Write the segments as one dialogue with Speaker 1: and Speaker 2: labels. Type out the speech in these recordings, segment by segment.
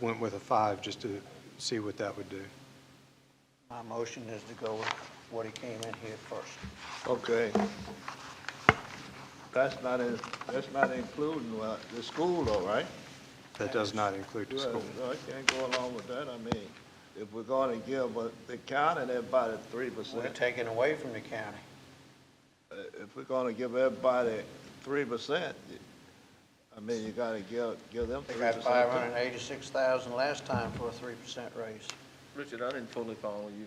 Speaker 1: went with a five just to see what that would do.
Speaker 2: My motion is to go with what he came in here first.
Speaker 3: Okay. That's not, in- that's not including uh, the school though, right?
Speaker 1: That does not include the
Speaker 3: Well,
Speaker 1: school.
Speaker 3: I can't go along with that. I mean, if we're gonna give uh, the county everybody three
Speaker 2: We're
Speaker 3: percent, uh,
Speaker 2: taking away from the county.
Speaker 3: if we're gonna give everybody three percent, I mean, you gotta give, give them
Speaker 2: They
Speaker 3: three
Speaker 2: got
Speaker 3: percent.
Speaker 2: five hundred and eighty-six thousand last time for a three percent raise.
Speaker 4: Richard, I didn't totally follow you.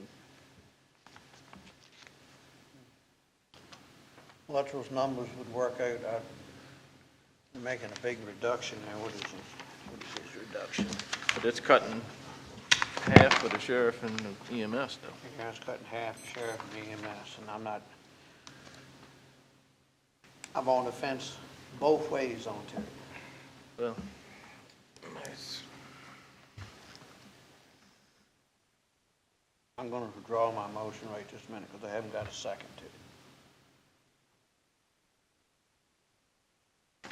Speaker 2: Luttrell's numbers would work out, uh, they're making a big reduction there, what is it? What is this reduction?
Speaker 4: But it's cutting half for the sheriff and the EMS though.
Speaker 2: The county's cutting half the sheriff and EMS, and I'm not, I'm on the fence both ways on it.
Speaker 4: Well,
Speaker 2: I'm gonna withdraw my motion right this minute, because I haven't got a second to it.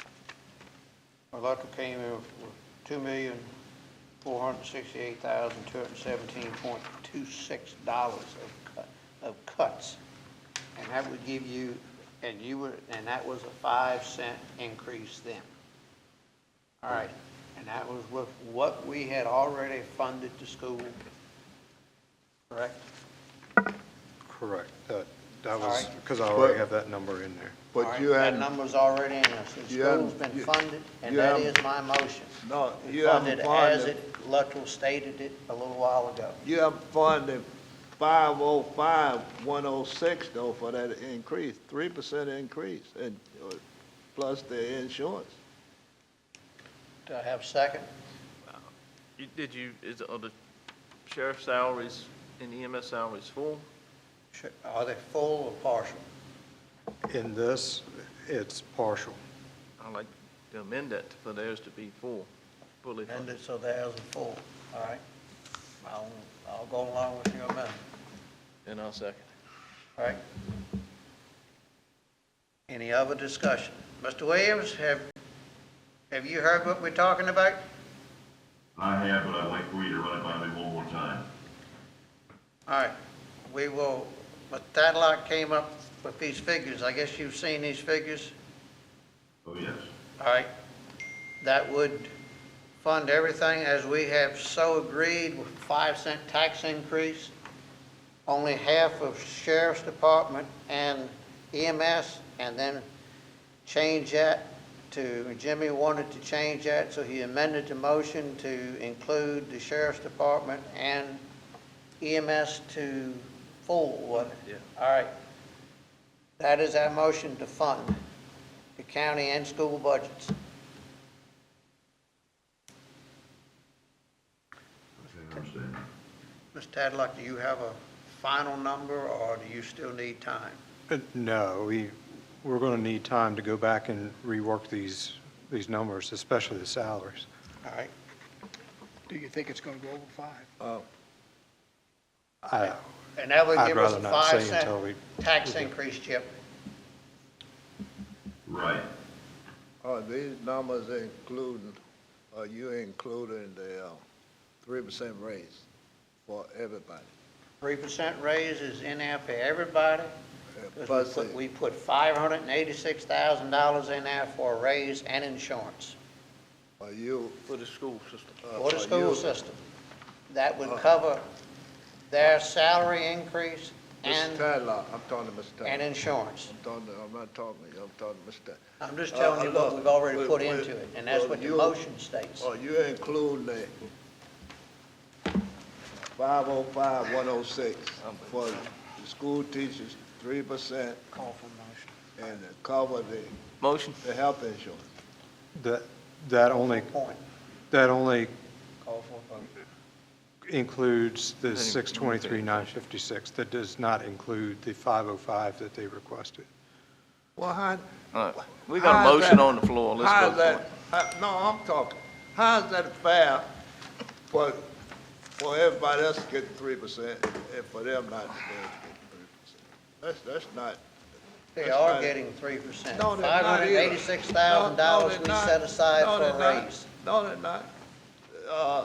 Speaker 2: Well, Luttrell came in with two million, four hundred and sixty-eight thousand, two hundred and seventeen point two-six dollars of cut, of cuts. And that would give you, and you were, and that was a five cent increase then. All right, and that was with what we had already funded the school, correct?
Speaker 1: Correct. That, that
Speaker 2: All
Speaker 1: was,
Speaker 2: right.
Speaker 1: because I already have that number in there.
Speaker 2: All
Speaker 3: But
Speaker 2: right,
Speaker 3: you
Speaker 2: That
Speaker 3: hadn't,
Speaker 2: number's already in there, since
Speaker 3: you hadn't-
Speaker 2: school's been
Speaker 3: you-
Speaker 2: funded, and
Speaker 3: you
Speaker 2: that is
Speaker 3: haven't-
Speaker 2: my motion.
Speaker 3: no,
Speaker 2: We
Speaker 3: you
Speaker 2: Funded
Speaker 3: haven't
Speaker 2: as
Speaker 3: funded,
Speaker 2: it, Luttrell stated it a little while ago.
Speaker 3: you haven't funded five oh five, one oh six though for that increase, three percent increase and, uh, plus the insurance.
Speaker 2: Do I have a second?
Speaker 4: you- did you, is, are the sheriff's salaries and EMS salaries full?
Speaker 2: Sh- Are they full or partial?
Speaker 1: In this, it's partial.
Speaker 4: I'd like to amend that for theirs to be full, fully
Speaker 2: And
Speaker 4: funded.
Speaker 2: it- so theirs are full, all right? I'll, I'll go along with your amendment,
Speaker 4: And I'll second.
Speaker 2: all right? Any other discussion? Mr. Williams, have, have you heard what we're talking about?
Speaker 5: I have, but I'd like for you to run it by me one more time.
Speaker 2: All right, we will, but that lot came up with these figures, I guess you've seen these figures,
Speaker 5: Oh, yes.
Speaker 2: all right? That would fund everything as we have so agreed with five cent tax increase. Only half of sheriff's department and EMS, and then change that to, Jimmy wanted to change that, so he amended the motion to include the sheriff's department and EMS to full, was it?
Speaker 4: Yeah.
Speaker 2: All right. That is our motion to fund the county and school budgets.
Speaker 5: Okay, I understand.
Speaker 2: Mr. Tadlock, do you have a final number, or do you still need time?
Speaker 1: Uh, No, we, we're going to need time to go back and rework these, these numbers, especially the salaries.
Speaker 2: All right,
Speaker 6: Do you think it's going to go over five?
Speaker 3: Uh,
Speaker 1: I,
Speaker 2: and that would
Speaker 1: I'd
Speaker 2: give us a
Speaker 1: rather not say
Speaker 2: five
Speaker 1: until
Speaker 2: cent
Speaker 1: we-
Speaker 2: tax increase, Chip.
Speaker 5: Right.
Speaker 3: Are these numbers including, are you including the uh, three percent raise for everybody?
Speaker 2: Three percent raise is in there for everybody,
Speaker 3: Uh,
Speaker 2: 'cause we
Speaker 3: Plus,
Speaker 2: put-
Speaker 3: the-
Speaker 2: we put five hundred and eighty-six thousand dollars in there for a raise and insurance
Speaker 3: are you?
Speaker 4: For the school system.
Speaker 3: uh,
Speaker 2: for the
Speaker 3: are
Speaker 2: school
Speaker 3: you- Uh-huh.
Speaker 2: system. That would cover their salary increase
Speaker 3: Mr.
Speaker 2: and,
Speaker 3: Tadlock, I'm talking to Mr.
Speaker 2: and
Speaker 3: Tadlock.
Speaker 2: insurance.
Speaker 3: I'm talking, to- I'm not talking to you, I'm talking to Mr. Tadlock.
Speaker 2: I'm just
Speaker 3: Uh,
Speaker 2: telling you what
Speaker 3: look,
Speaker 2: we've already
Speaker 3: we-
Speaker 2: put
Speaker 3: we-
Speaker 2: into it, and that's
Speaker 3: well,
Speaker 2: what the
Speaker 3: you-
Speaker 2: motion states.
Speaker 3: Are Oh, you including the five oh five, one oh six for the school teachers, three percent
Speaker 2: Call for motion.
Speaker 3: and to cover the,
Speaker 4: Motion?
Speaker 3: the health insurance?
Speaker 1: that, that only,
Speaker 2: Point,
Speaker 1: that only
Speaker 2: call for a vote.
Speaker 1: includes the 623, 956. That does not include the 505 that they requested.
Speaker 3: Well, how,
Speaker 4: All right, we got a
Speaker 3: How's
Speaker 4: motion
Speaker 3: that-
Speaker 4: on the floor, let's
Speaker 3: how's
Speaker 4: vote for
Speaker 3: that-
Speaker 4: it.
Speaker 3: how- No, I'm talking, how's that fair for, for everybody else to get three percent and for them not to get three percent? That's, that's not,
Speaker 2: They
Speaker 3: That's
Speaker 2: are
Speaker 3: right.
Speaker 2: getting three percent.
Speaker 3: no, they're not either.
Speaker 2: $586,000
Speaker 3: No, no,
Speaker 2: we
Speaker 3: they're not.
Speaker 2: set aside
Speaker 3: No,
Speaker 2: for
Speaker 3: they're
Speaker 2: a
Speaker 3: not.
Speaker 2: raise.
Speaker 3: No, they're not. Uh,